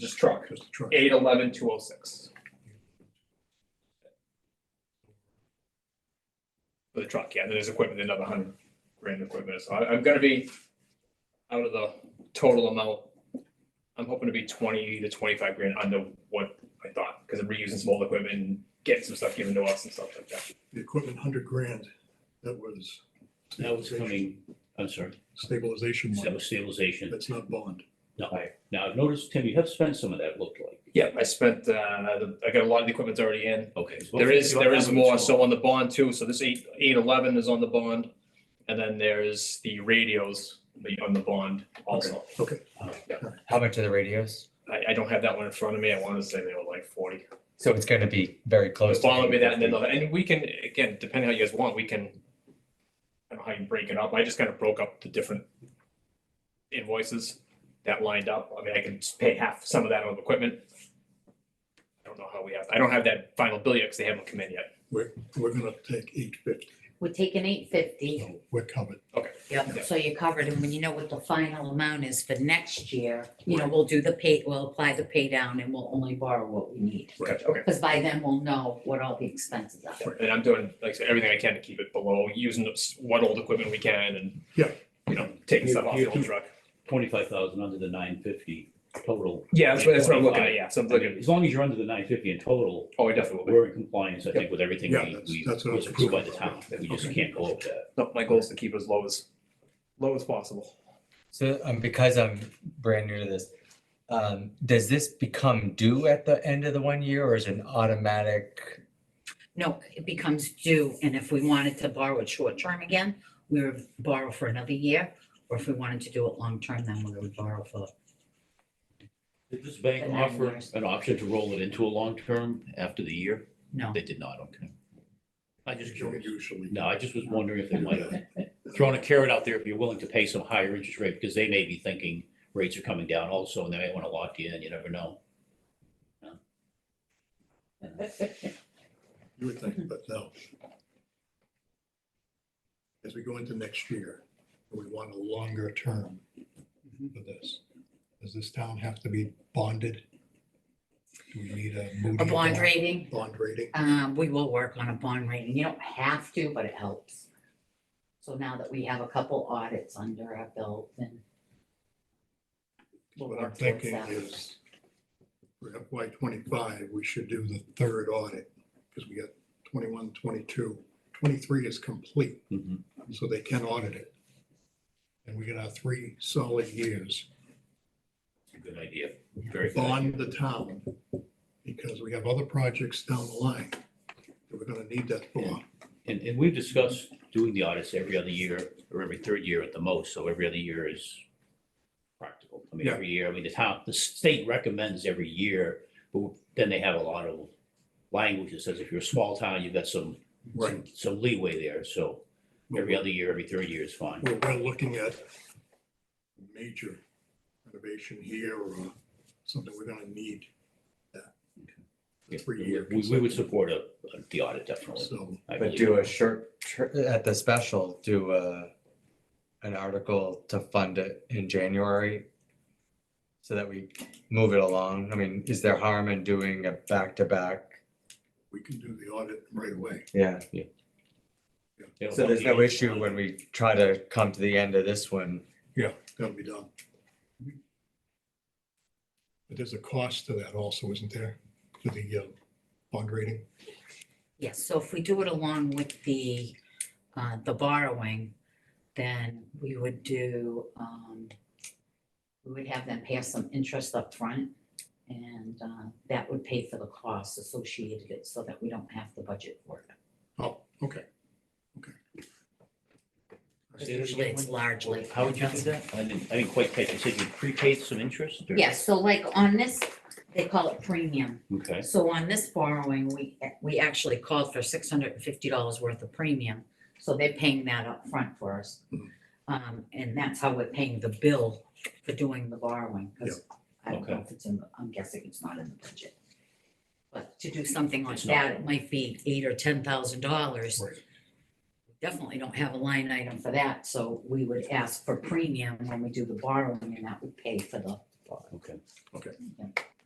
This truck, Just a truck. eight eleven two oh six. For the truck, yeah, then there's equipment, another hundred grand equipment, so I, I'm gonna be out of the total amount. I'm hoping to be twenty to twenty-five grand under what I thought, because I'm reusing some old equipment and getting some stuff given to us and stuff like that. The equipment, hundred grand, that was. That was stabilization- coming, I'm sorry, Stabilization that money, was stabilization. that's not bond. No, I- Now, I've noticed, Tim, you have spent some of that, it looked like. Yeah, I spent, uh, the- I got a lot of the equipment's already in, Okay. so There is, there is more, what's- so on the bond too, so this eight, eight eleven is on the bond, and then there's the radios the- on the bond also. Okay. How much are the radios? I, I don't have that one in front of me, I wanna say they were like forty. So Oh, it's gonna be very close. to Follow me that, and then, 50. the- and we can, again, depending how you guys want, we can, I don't know how you break it up, I just kinda broke up the different invoices that lined up, I mean, I can just pay half some of that on equipment. I don't know how we have, I don't have that final bill yet, cause they haven't come in yet. We're, we're gonna take eight fifty, We're taking eight fifty, so we're covered. Yeah. yep, so you're covered, and when you know what the final amount is for next year, you know, we'll do the pay, we'll apply the pay down and we'll only borrow what we need. Gotcha, okay. Because by then we'll know what all the expenses are. And I'm doing, like, I said, everything I can to keep it below, using s- what old equipment we can and. Yeah. You know, taking stuff off the old Yeah. truck. 25,000 under the 950 total. Yeah, that's what, that's what I'm looking at, yeah, so I'm I mean, looking, As long as you're under the 950 in total, oh, I definitely will be. we're in compliance, I think, with everything Yeah, we, that's- we that's what I was was approved by the concerned town. about. We just Okay. can't go over that. No, my goal is to keep it as low as, low as possible. So, um, because I'm brand new to this, um, does this become due at the end of the one year or is it an automatic? No, it becomes due, and if we wanted to borrow it short term again, we would borrow for another year. Or if we wanted to do it long term, then we would borrow for, Did this bank And then offer there's- an option to roll it into a long term after the year? no. They did not, okay. I just curious. Usually. No, I just was wondering if they might have thrown a carrot out there if you're willing to pay some higher interest rate, because they may be thinking rates are coming down also, and they may want to lock you in, you never know. You would think, but no. As we go into next year, we want a longer term Mm-hmm. for this. Does this town have to be bonded? Do we need a Moody? A bond rating, Bond rating? um, we will work on a bond rating. You don't have to, but it helps. So now that we have a couple audits under our belt, then. we'll What work I'm towards thinking that. is for FY twenty-five, we should do the third audit because we got 21, 22, 23 is complete. Mhm. so they can audit it. And we get our three solid years, It's a Good idea, very good. idea. bond the town, because we have other projects down the line that we're gonna need that for. And, and we've discussed doing the audits every other year, or every third year at the most, so every other year is practical. I mean, Yeah. every year, I mean, the town, the state recommends every year, but then they have a lot of language that says if you're a small town, you've got some, some- some leeway there, so every other year, every third year is fine. We're, we're looking at major renovation here or something we're gonna need that. The three We, year. we would support a, the audit, definitely. So, I But believe. do a short, ter- at the special, do a, an article to fund it in January? So that we move it along. I mean, is there harm in doing a back-to-back? we can do the audit right away. Yeah. They don't So there's no want issue when we try to come to the end of this one. That'll be done. But there's a cost to that also, isn't there, to the uh, bond rating? Yes, so if we do it along with the, uh, the borrowing, then we would do, um, we would have them pay us some interest up front, and, uh, that would pay for the costs associated with it so that we don't have the budget for it. Oh, okay, okay. Say that Usually again, it's Wendy? largely. How would you do that? I didn't, I didn't quite catch, you said you prepaid some interest? or- Yeah, so like on this, they call it premium. Okay, So on this borrowing, we, we actually called for six hundred and fifty dollars worth of premium, so they're paying that up front for us. Mhm. Mm-hmm. Um, and that's how we're paying the bill for doing the borrowing, because I don't know if it's in, the- I'm guessing it's not in the budget. But to do something like It's not. that, it might be eight or ten thousand dollars. Right. Definitely don't have a line item for that, so we would ask for premium when we do the borrowing, and that would pay for the apply. okay.